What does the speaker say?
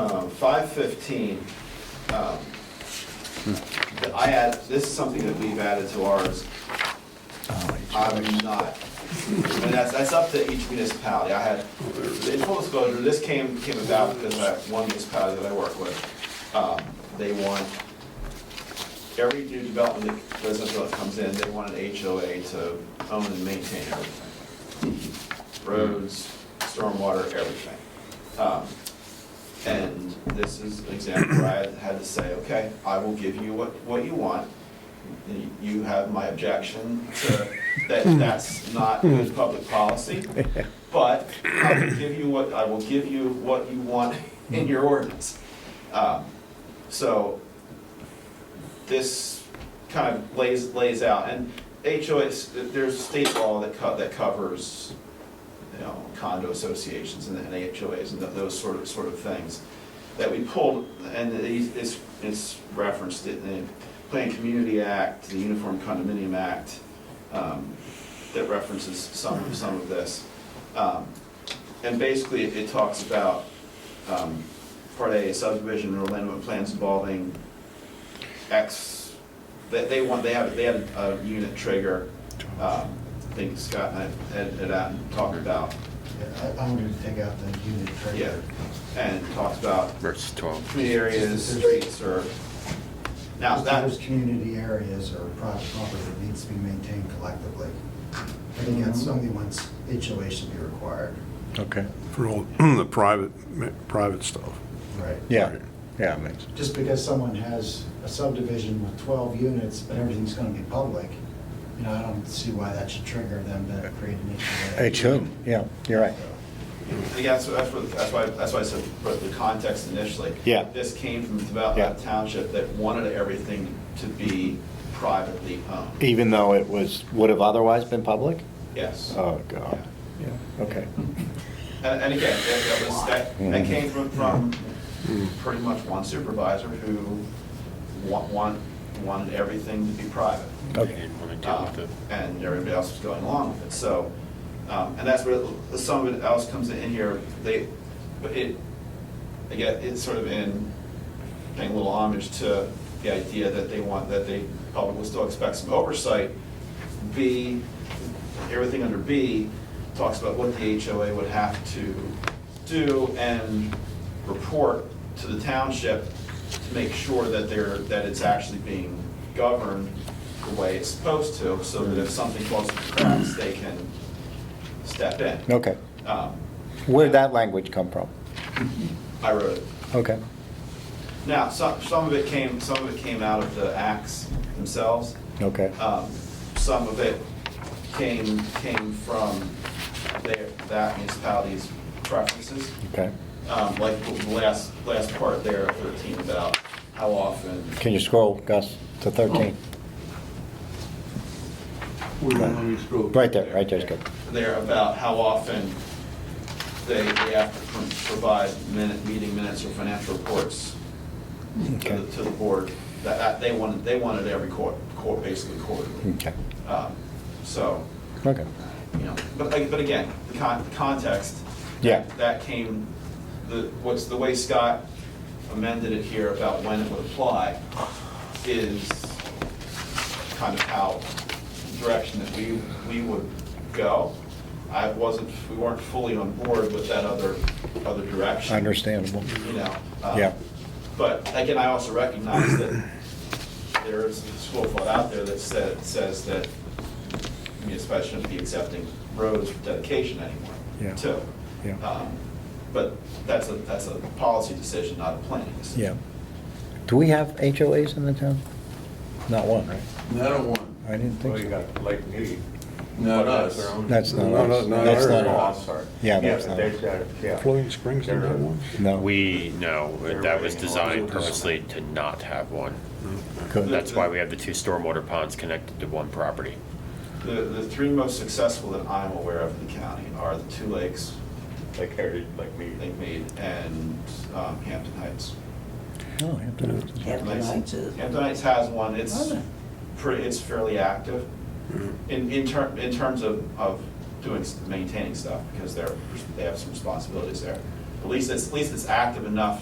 Um, Five fifteen, um, I add, this is something that we've added to ours. I'm not, and that's, that's up to each municipality. I had, in full disclosure, this came, came about because I have one municipality that I work with. Um, They want, every new development, that business that comes in, they want an HOA to own and maintain everything. Roads, stormwater, everything. Um, and this is an example where I had to say, okay, I will give you what, what you want. You have my objection to, that that's not good public policy, but I will give you what, I will give you what you want in your ordinance. Um, So this kind of lays, lays out, and HOAs, there's state law that co, that covers you know, condo associations and and HOAs and tho- those sort of, sort of things that we pulled, and these- it's, it's referenced in the Planned Community Act, the Uniform Condominium Act, um, that references some, some of this. Um, And basically, it talks about, um, part A, subdivision or land plans involving X, they, they want, they have, they had a unit trigger, um, I think Scott and I had, had out and talked about, Yeah, I- I'm going to take out the unit yeah, trigger. and talked about versus 12. community areas, streets, or, now Just Those that, community areas or private property that needs to be maintained collectively. I think that's the only ones HOA should be required. Okay. for all the private, private stuff. Right. Yeah, yeah, it makes, Just because someone has a subdivision with 12 units, but everything's going to be public, you know, I don't see why that should trigger them to create an HOA. it's whom, yeah, you're right. yeah, that's, that's what- that's why, that's why I said, put the context initially. Yeah. This came from about Yeah. that township that wanted everything to be privately owned, Even though it was, would have otherwise been public? yes. Oh, God. Yeah, okay. And, and again, that, that was, that, that came from, from pretty much one supervisor who wa- want, wanted everything to be private. Okay. Um, And everybody else was going along with it, so, um, and that's where the- some of it else comes in here, they, but it, again, it's sort of in, paying a little homage to the idea that they want, that they probably will still expect some oversight. B, everything under B talks about what the HOA would have to do and report to the township to make sure that they're, that it's actually being governed the way it's supposed to, so that if something falls through the cracks, they can step in. Okay. Um, Where'd that language come from? I wrote it. Okay. Now, some, some of it came, some of it came out of the acts themselves. Okay. Um, Some of it came, came from their, that municipality's preferences. Okay. Um, Like the last, last part there, 13, about how often, Can you scroll, Gus, to 13? Where do you want me to scroll? Right there, right there's good. there about how often they, they have to pro- provide minute, meeting minutes or financial reports to Okay. the, to the board. That, that, they wanted, they wanted every quarter, quarter, basically quarterly. Okay, Um, So, okay. you know, but, but again, the con, the context. Yeah. That came, the, what's, the way Scott amended it here about when it would apply is kind of how, direction that we, we would go. I wasn't, we weren't fully on board with that other, other direction. Understandable. You know? um, Yeah. But again, I also recognize that there is a school flood out there that said, says that municipalities shouldn't be accepting roads for dedication Yeah. anymore, too. Yeah. Um, But that's a, that's a policy decision, not a planning decision. Yeah. Do we have HOAs in the town? Not one, right? Not a one. I didn't think Well, you so. got Lake Mead. Not us. That's not No, us. no, no, That's no, not no. Oh, us. I'm sorry. Yeah, Yeah, that's but not- they've got, yeah. Floating Springs, They're- is that one? No. We, no, that was designed purposely to not have one. Good. That's why we have the two stormwater ponds connected to one property. The, the three most successful that I'm aware of in the county are the Two Lakes, Lake Heritage, Lake Mead. Lake Mead, and um, Hampton Heights. Oh, Hampton Roads. Hampton Heights is- Hampton Heights has one, it's pretty, it's fairly active in, in ter, in terms of, of doing, maintaining stuff, because they're, they have some responsibilities there. At least it's, at least it's active enough